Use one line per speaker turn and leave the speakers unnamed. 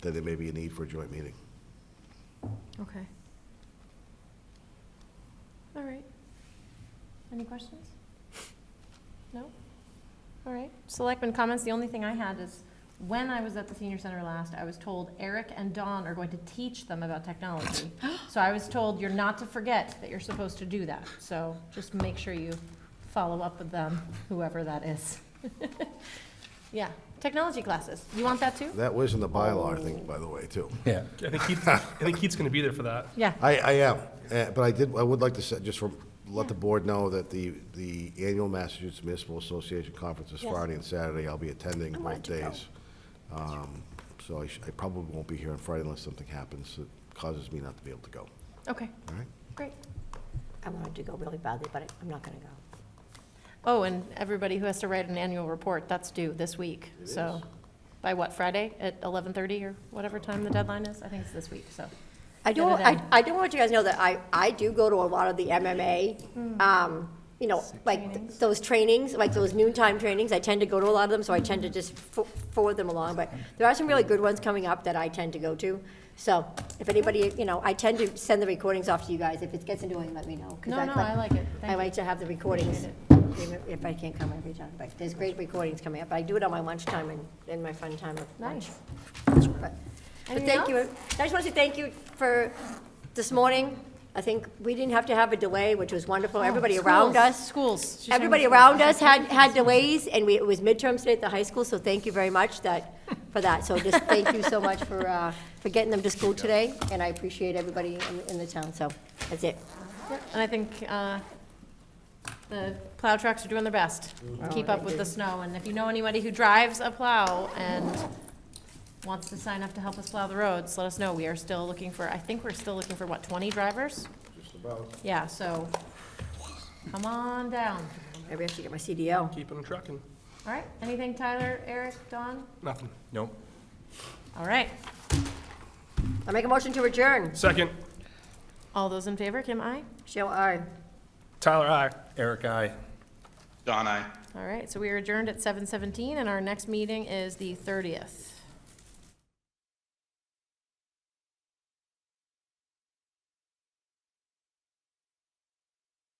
that there may be a need for a joint meeting.
Okay. All right. Any questions? No? All right. Selectmen comments, the only thing I had is, when I was at the senior center last, I was told Eric and Dawn are going to teach them about technology. So I was told you're not to forget that you're supposed to do that. So just make sure you follow up with them, whoever that is. Yeah, technology classes. You want that too?
That was in the bylaw, I think, by the way, too.
Yeah.
I think Keith, I think Keith's gonna be there for that.
Yeah.
I, I am, uh, but I did, I would like to say, just for, let the board know that the, the annual Massachusetts Municipal Association Conference is
Yes.
Friday and Saturday. I'll be attending
I
both
wanted to go.
days. Um, So I sh I probably won't be here on Friday unless something happens that causes me not to be able to go,
Okay,
all right?
great.
I wanted to go really badly, but I- I'm not going to go.
Oh, and everybody who has to write an annual report, that's due this week, so. By what, Friday at 11:30 or whatever time the deadline is? I think it's this week, so.
I do,
Get it in.
I, I do want you guys to know that I, I do go to a lot of the MMA, um, you know, like th-
Trainings.
those trainings, like those noontime trainings. I tend to go to a lot of them, so I tend to just fo- forward them along. But there are some really good ones coming up that I tend to go to. So if anybody, you know, I tend to send the recordings off to you guys. If it gets annoying, let me know. 'cause
No,
I'd
no, I like it.
I
Thank
like
you.
to have the recordings, if I can't come every time, but there's great recordings coming up. I do it on my lunchtime and, and my fun time of lunch.
Nice.
But but
Anything
thank you, I
else?
just want to say thank you for this morning. I think we didn't have to have a delay, which was wonderful. Everybody around
Oh, Schools,
us,
Schools. She's
everybody
talking about
around us had, had delays, and we, it was midterms today at the high school, so thank you very much that, for that. So just thank you so much for, uh, for getting them to school today, and I appreciate everybody in, in the town, so that's it.
schools. Yep, And I think uh, the plow trucks are doing their best to keep up with the snow. And if you know anybody who drives a plow and wants to sign up to help us plow the roads, let us know. We are still looking for, I think we're still looking for, what, 20 drivers?
Just about.
Yeah, so come on down.
Maybe I should get my CDL.
Keep him trucking.
All right, anything Tyler, Eric, Dawn?
Nothing.
Nope.
All right,
I make a motion to adjourn.
Second,
all those in favor, Kim, aye?
Show aye.
Tyler, aye.
Eric, I.
Don, I.
All right, so we are adjourned at seven seventeen, and our next meeting is the thirtieth.